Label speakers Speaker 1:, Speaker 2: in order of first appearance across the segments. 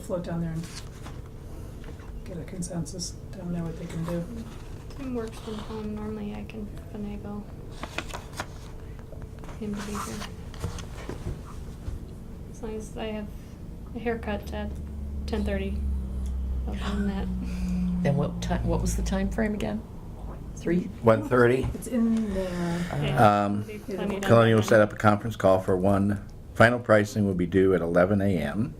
Speaker 1: float down there and get a consensus down there what they can do.
Speaker 2: Tim works from home. Normally I can finagle him to be here. As long as I have a haircut at ten thirty. Other than that.
Speaker 3: Then what time, what was the time frame again? Three?
Speaker 4: 1:30.
Speaker 1: It's in there.
Speaker 2: Yeah,
Speaker 4: Um,
Speaker 2: it'll be plenty done
Speaker 4: Colonial
Speaker 2: by
Speaker 4: will set
Speaker 2: then.
Speaker 4: up a conference call for one. Final pricing will be due at 11 a.m.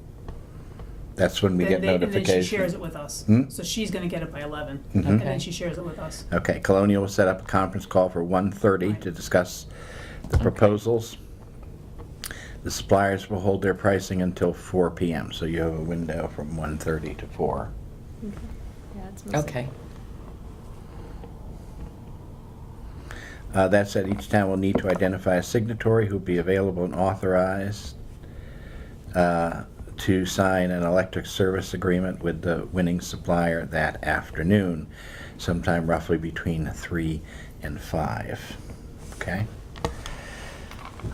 Speaker 4: That's when we
Speaker 1: Then
Speaker 4: get
Speaker 1: they- And then she shares it
Speaker 4: notification.
Speaker 1: with us.
Speaker 4: Hmm?
Speaker 1: So she's gonna get it by eleven,
Speaker 4: Mhm.
Speaker 1: and then
Speaker 3: Okay.
Speaker 1: she shares it with us.
Speaker 4: Okay, Colonial will set up a conference call for 1:30 to discuss the proposals. The suppliers will hold their pricing until 4 p.m., so you have a window from 1:30 to 4.
Speaker 2: Okay. Yeah, it's mostly-
Speaker 3: Okay.
Speaker 4: Uh, That said, each town will need to identify a signatory who'll be available and authorized uh, to sign an electric service agreement with the winning supplier that afternoon, sometime roughly between three and five. Okay?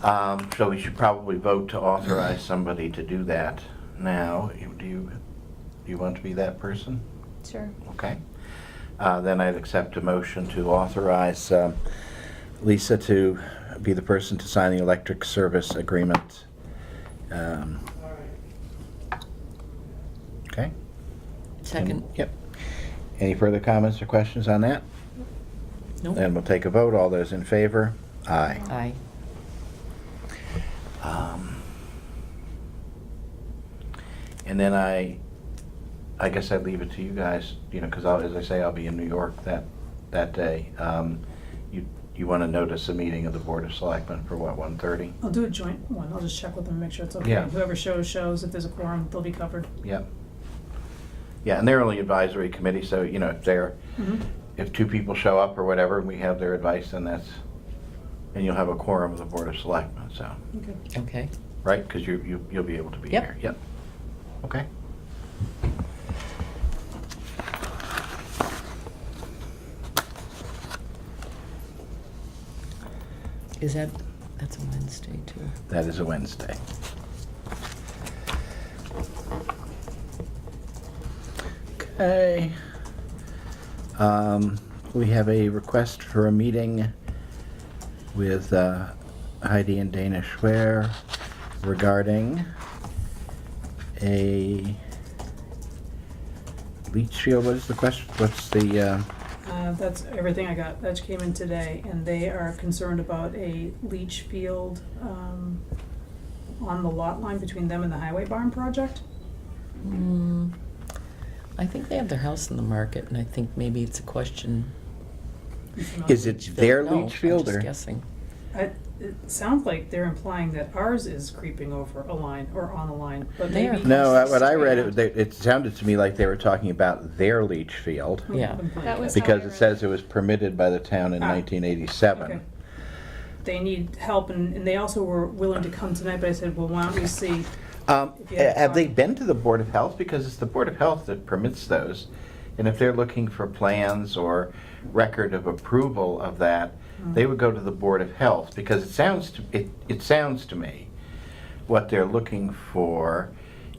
Speaker 4: Um, So we should probably vote to authorize somebody to do that now. You- Do you, do you want to be that person?
Speaker 2: Sure.
Speaker 4: Okay. Uh, Then I'd accept a motion to authorize um, Lisa to be the person to sign the electric service agreement. Um, Okay?
Speaker 3: Second?
Speaker 4: Yep. Any further comments or questions on that?
Speaker 3: Nope.
Speaker 4: Then we'll take a vote. All those in favor? Aye.
Speaker 3: Aye.
Speaker 4: Um, And then I, I guess I'd leave it to you guys, you know, because as I say, I'll be in New York that, that day. Um, You, you want to notice a meeting of the Board of Selectmen for what, 1:30?
Speaker 1: I'll do a joint one, I'll just check with them, and make sure it's okay.
Speaker 4: Yeah.
Speaker 1: Whoever shows, shows, if there's a quorum, they'll be covered.
Speaker 4: Yep. Yeah, and they're only advisory committee, so, you know, if they're,
Speaker 1: Mhm.
Speaker 4: if two people show up or whatever, and we have their advice, then that's, and you'll have a quorum of the Board of Selectmen, so,
Speaker 1: Okay.
Speaker 3: Okay.
Speaker 4: right? Because you, you- you'll be able to be
Speaker 3: Yep.
Speaker 4: here. Yep. Okay.
Speaker 3: Is that, that's a Wednesday too.
Speaker 4: That is a Wednesday. Okay. Um, We have a request for a meeting with uh, Heidi and Dana Schwer regarding a leach field, what is the question, what's the, uh,
Speaker 1: Uh, that's everything I got. That came in today, and they are concerned about a leach field, um, on the lot line between them and the highway barn project.
Speaker 3: Hmm. I think they have their house in the market and I think maybe it's a question.
Speaker 1: You familiar?
Speaker 4: is it their
Speaker 3: No,
Speaker 4: leach field
Speaker 3: I'm just
Speaker 4: or?
Speaker 3: guessing.
Speaker 1: I, it sounds like they're implying that ours is creeping over a line or on a line, but
Speaker 3: They are.
Speaker 1: maybe.
Speaker 4: No, I- what I read, it they- it sounded to me like they were talking about their leach field.
Speaker 3: Yeah.
Speaker 2: That was-
Speaker 4: Because
Speaker 2: I
Speaker 4: it
Speaker 2: read
Speaker 4: says it was permitted by the town in
Speaker 1: Ah,
Speaker 4: nineteen
Speaker 1: okay.
Speaker 4: eighty-seven.
Speaker 1: They need help, and, and they also were willing to come tonight, but I said, well, why don't we see?
Speaker 4: Um,
Speaker 1: If you have
Speaker 4: have they
Speaker 1: time.
Speaker 4: been to the Board of Health? Because it's the Board of Health that permits those. And if they're looking for plans or record of approval of that, they would go to the Board of Health, because it sounds to, it, it sounds to me, what they're looking for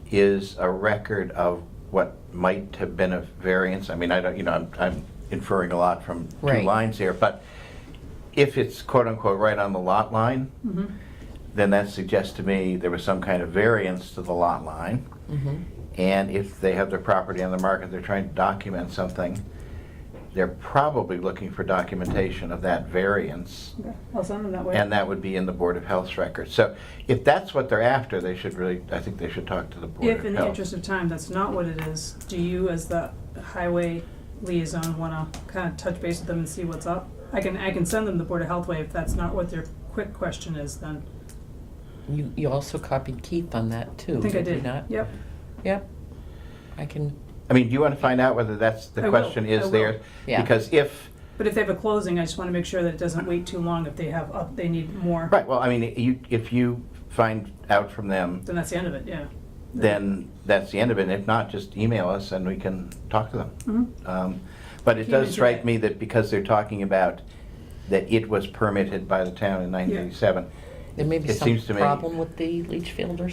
Speaker 4: is a record of what might have been a variance. I mean, I don't, you know, I'm, I'm inferring a lot from two
Speaker 3: Right.
Speaker 4: lines here, but if it's quote-unquote right on the lot line,
Speaker 2: Mm-hmm.
Speaker 1: Mhm.
Speaker 4: then that suggests to me there was some kind of variance to the lot line.
Speaker 3: Mhm.
Speaker 4: And if they have their property on the market, they're trying to document something, they're probably looking for documentation of that variance.
Speaker 1: Okay, I'll send them that way.
Speaker 4: And that would be in the Board of Health's record. So if that's what they're after, they should really, I think they should talk to the Board
Speaker 1: If
Speaker 4: of
Speaker 1: in the
Speaker 4: Health.
Speaker 1: interest of time, that's not what it is, do you as the highway liaison wanna kinda touch base with them and see what's up? I can, I can send them the Board of Health way if that's not what their quick question is then.
Speaker 3: You, you also copied Keith on that too,
Speaker 1: I think I
Speaker 3: Oh, did you
Speaker 1: did,
Speaker 3: not?
Speaker 1: yep.
Speaker 3: Yep. I can,
Speaker 4: I mean, do you want to find out whether that's,
Speaker 1: I
Speaker 4: the
Speaker 1: will,
Speaker 4: question
Speaker 1: I
Speaker 4: is
Speaker 1: will.
Speaker 4: there?
Speaker 3: Yeah.
Speaker 4: Because if,
Speaker 1: But if they have a closing, I just wanna make sure that it doesn't wait too long if they have, up- they need more,
Speaker 4: right, well, I mean, you, if you find out from them,
Speaker 1: then that's the end of it, yeah.
Speaker 4: then that's the end of it. If not, just email us and we can talk to them.
Speaker 1: Mhm.
Speaker 4: Um, But it
Speaker 1: Came
Speaker 4: does
Speaker 1: into
Speaker 4: strike
Speaker 1: that.
Speaker 4: me that because they're talking about that it was permitted by the town in 1987,
Speaker 3: there may be
Speaker 4: It
Speaker 3: some
Speaker 4: seems to me-
Speaker 3: problem with the leach field or